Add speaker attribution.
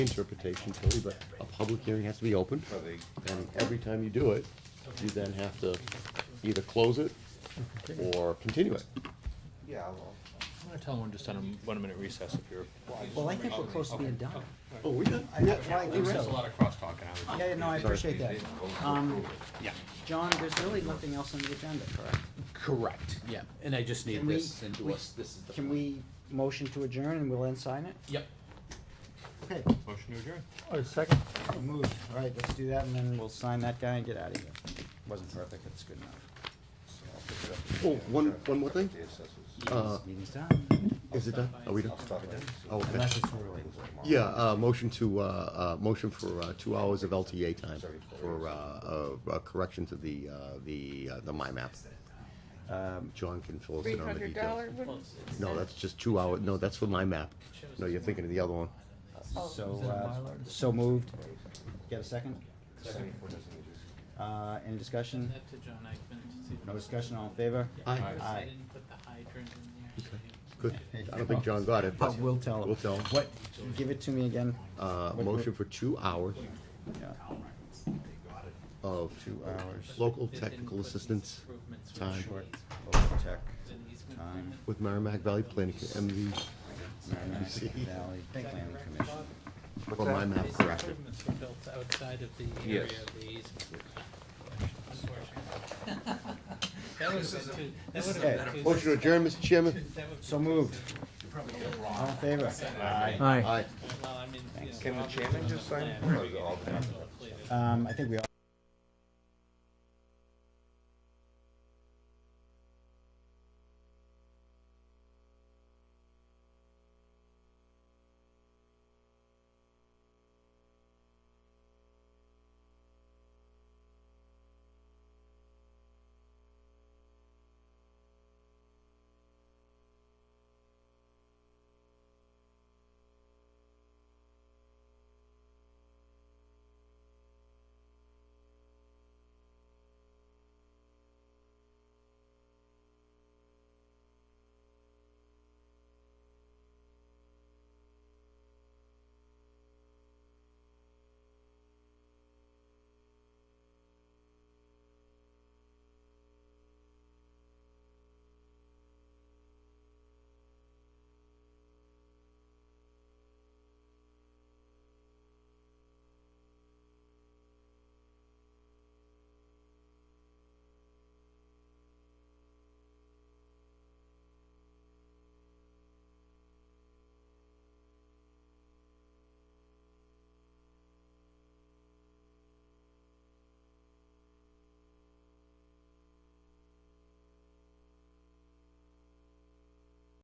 Speaker 1: interpretation, Tilly, but a public hearing has to be open. And every time you do it, you then have to either close it or continue it.
Speaker 2: Yeah,
Speaker 3: I'm gonna tell them we're just on a one-minute recess if you're.
Speaker 4: Well, I think we're close to being done.
Speaker 1: Oh, we done?
Speaker 4: I- well, I think
Speaker 3: There's a
Speaker 4: so.
Speaker 3: lot of crosstalk and I would.
Speaker 4: Yeah, no, I appreciate that. Um,
Speaker 3: Yeah.
Speaker 4: John, there's really nothing else on the agenda, correct?
Speaker 5: Correct, yeah, and I just need
Speaker 4: Can we-
Speaker 5: this endorsed, this is the.
Speaker 4: Can we motion to adjourn and we'll then sign it?
Speaker 5: Yep.
Speaker 4: Okay,
Speaker 3: Motion to adjourn.
Speaker 4: moved. All right, let's do that and then we'll sign that guy and get out of here. Wasn't perfect, it's good enough.
Speaker 1: Oh, one, one more thing? Uh,
Speaker 4: This meeting's done.
Speaker 1: is it done? Are we done? Oh, okay.
Speaker 4: Unless it's recorded.
Speaker 1: Yeah, uh, motion to, uh, uh, motion for, uh, two hours of LTA time for, uh, uh, correction to the, uh, the, uh, the MyMap.
Speaker 4: Um,
Speaker 1: John can fill us
Speaker 6: Three
Speaker 1: in on the
Speaker 6: hundred
Speaker 1: details.
Speaker 6: dollar one?
Speaker 1: No, that's just two hours. no, that's for MyMap. No, you're thinking of the other one.
Speaker 4: So, uh, so moved. Get a second? Uh, any discussion?
Speaker 7: That to John Eichman to see.
Speaker 4: No discussion, all in favor?
Speaker 1: Aye.
Speaker 7: I
Speaker 4: Aye.
Speaker 7: didn't put the hydrant in there. so you-
Speaker 1: Good. I don't think John got it, but.
Speaker 4: But we'll tell him.
Speaker 1: We'll tell him.
Speaker 4: What, give it to me again.
Speaker 1: Uh,
Speaker 4: What-
Speaker 1: motion for two hours
Speaker 4: Yeah.
Speaker 1: of.
Speaker 4: Two hours.
Speaker 1: Local
Speaker 7: They didn't
Speaker 1: technical
Speaker 7: put these
Speaker 1: assistance
Speaker 7: improvements with
Speaker 1: time.
Speaker 7: trees,
Speaker 4: Local tech,
Speaker 7: with an easement
Speaker 4: Time.
Speaker 7: agreement.
Speaker 1: with Merrimack Valley Planning, MV,
Speaker 4: Merrimack
Speaker 1: See.
Speaker 4: Valley Planning Commission.
Speaker 1: for my map
Speaker 7: These
Speaker 1: correction.
Speaker 7: improvements were built outside of the area
Speaker 5: Yes.
Speaker 7: of the easement. Unfortunately. That was, that would
Speaker 4: Okay.
Speaker 7: have been too.
Speaker 1: Motion to adjourn, Mr. Chairman.
Speaker 7: that would be
Speaker 4: So
Speaker 7: too
Speaker 4: moved.
Speaker 7: soon.
Speaker 4: All in favor? Aye.
Speaker 1: Aye.
Speaker 7: Well, I mean, you know,
Speaker 2: Can the
Speaker 7: obviously
Speaker 2: chairman
Speaker 7: on
Speaker 2: just sign?
Speaker 7: plan,
Speaker 2: Or is
Speaker 7: we
Speaker 2: it all the
Speaker 7: have
Speaker 2: members?
Speaker 7: completed.
Speaker 4: Um, I think we all.